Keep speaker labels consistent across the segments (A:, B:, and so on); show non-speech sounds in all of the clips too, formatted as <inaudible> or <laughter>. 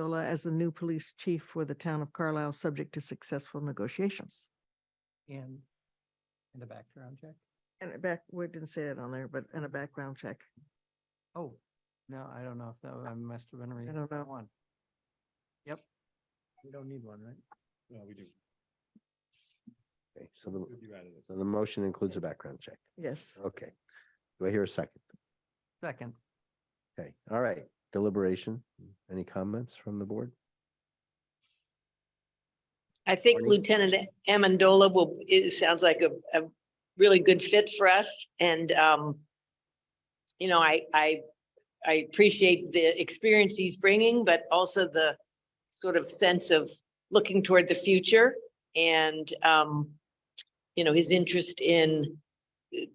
A: Carla as the new police chief for the town of Carlisle, subject to successful negotiations.
B: and, and a background check?
A: And a back, we didn't say that on there, but and a background check.
B: Oh, no, I don't know if that, I must have been reading.
A: don't know.
B: One. Yep. We don't need one, right?
C: No, we do.
D: Okay, so the,
C: You added it.
D: so the motion includes a background check.
A: Yes.
D: Okay. Do I hear a second?
B: Second,
D: Okay, all right. Deliberation. Any comments from the board?
E: I think
D: Morning.
E: Lieutenant Amendola will, it sounds like a, a really good fit for us and, um, you know, I, I, I appreciate the experience he's bringing, but also the sort of sense of looking toward the future and, um, you know, his interest in,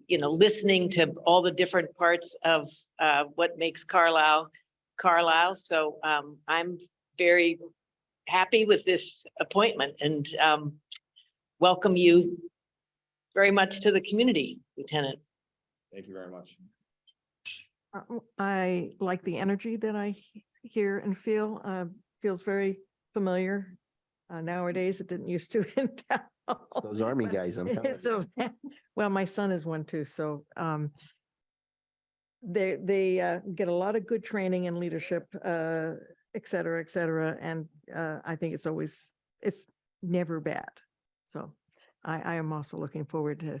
E: you know, listening to all the different parts of, uh, what makes Carlisle, Carlisle. So, um, I'm very happy with this appointment and um, welcome you very much to the community, Lieutenant.
C: Thank you very much.
A: Uh, w- I like the energy that I he- hear and feel, uh, feels very familiar. Uh, nowadays, it didn't used to <laughs> in town.
D: It's Those army guys,
A: <laughs>
D: I'm telling you.
A: So, well, my son is one too, so, um, they, they, uh, get a lot of good training and leadership, uh, et cetera, et cetera, and, uh, I think it's always, it's never bad. So I, I am also looking forward to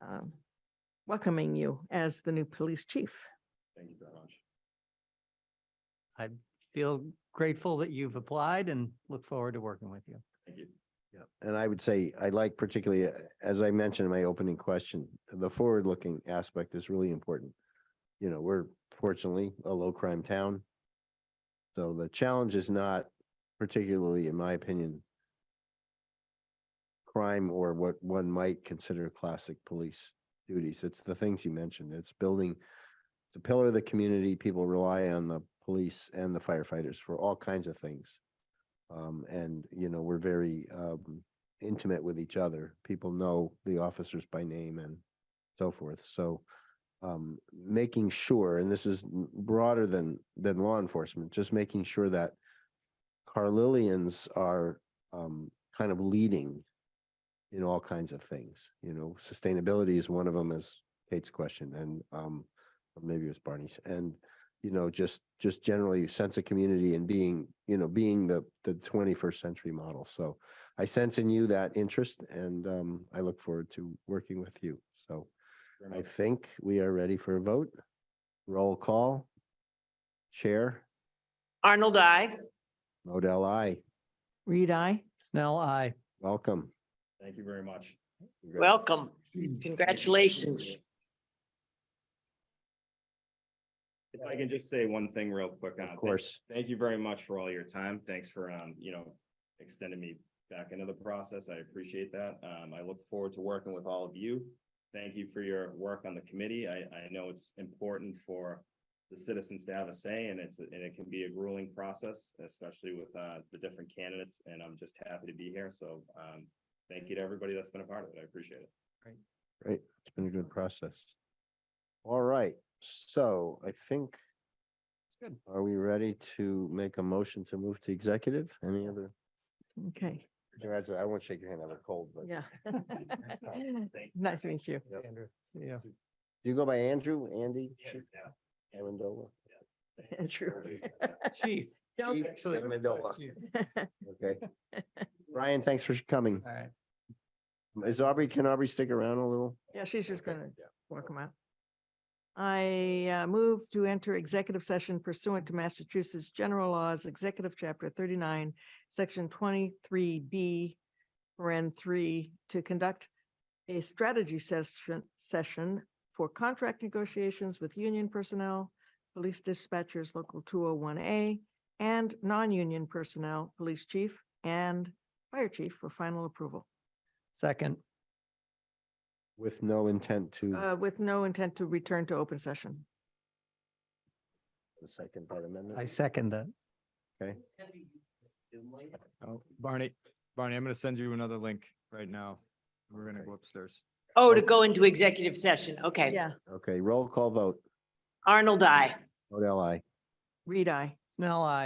A: um, welcoming you as the new police chief.
C: Thank you very much.
B: I feel grateful that you've applied and look forward to working with you.
C: Thank you.
D: Yeah, And I would say, I like particularly, uh, as I mentioned in my opening question, the forward-looking aspect is really important. You know, we're fortunately a low-crime town. So the challenge is not particularly, in my opinion, crime or what one might consider classic police duties. It's the things you mentioned. It's building the pillar of the community. People rely on the police and the firefighters for all kinds of things. Um, and, you know, we're very, um, intimate with each other. People know the officers by name and so forth. So, um, making sure, and this is n- broader than, than law enforcement, just making sure that Carlilians are, um, kind of leading in all kinds of things, you know, sustainability is one of them, as Kate's question, and, um, or maybe it was Barney's, and, you know, just, just generally sense of community and being, you know, being the, the twenty-first century model. So I sense in you that interest and um, I look forward to working with you. So
C: Very
D: I
C: much.
D: think we are ready for a vote. Roll call. Chair,
E: Arnold, I.
D: Modell, I,
A: Reed, I,
B: Snell, I,
D: welcome.
C: Thank you very much.
E: Welcome. Congratulations.
C: If I can just say one thing real quick. on it,
D: Of
C: thank-
D: course,
C: Thank you very much for all your time. Thanks for, um, you know, extending me back into the process. I appreciate that. Um, I look forward to working with all of you. Thank you for your work on the committee. I, I know it's important for the citizens to have a say and it's, and it can be a grueling process, especially with, uh, the different candidates. And I'm just happy to be here. So, um, thank you to everybody that's been a part of it. I appreciate it.
D: great. It's been a good process. All right, so I think,
B: Good.
D: are we ready to make a motion to move to executive? Any other?
A: okay,
D: Congratulations. I won't shake your hand. I look cold, but
A: <laughs> yeah.
C: Thank you.
A: Nice to meet you.
D: Yep.
B: Andrew, see ya.
D: do you go by Andrew, Andy,
C: Yeah,
D: Chief
C: yeah.
D: Amendola?
A: True.
B: Chief.
A: Don't-
B: Chief, actually,
D: Amendola.
B: Chief.
D: Okay. Ryan, thanks for coming.
B: All right,
D: Is Aubrey, can Aubrey stick around a little?
A: Yeah, she's just
D: Okay,
A: gonna
D: yeah.
A: walk them out. I uh, move to enter executive session pursuant to Massachusetts General Laws, Executive Chapter thirty-nine, Section twenty-three B, paren three, to conduct a strategy session, session for contract negotiations with union personnel, police dispatchers, local two oh one A, and non-union personnel, police chief and fire chief for final approval,
B: second,
D: With no intent to
A: uh, with no intent to return to open session.
D: the second part
B: I
D: amendment.
B: second that.
F: Oh, Barney, Barney, I'm gonna send you another link right now. We're gonna
D: Okay.
F: go upstairs.
E: Oh, to go into executive session. Okay.
A: Yeah,
D: Okay, roll call vote.
E: Arnold, I.
D: Vote L I.
A: read I.
B: Snell, I.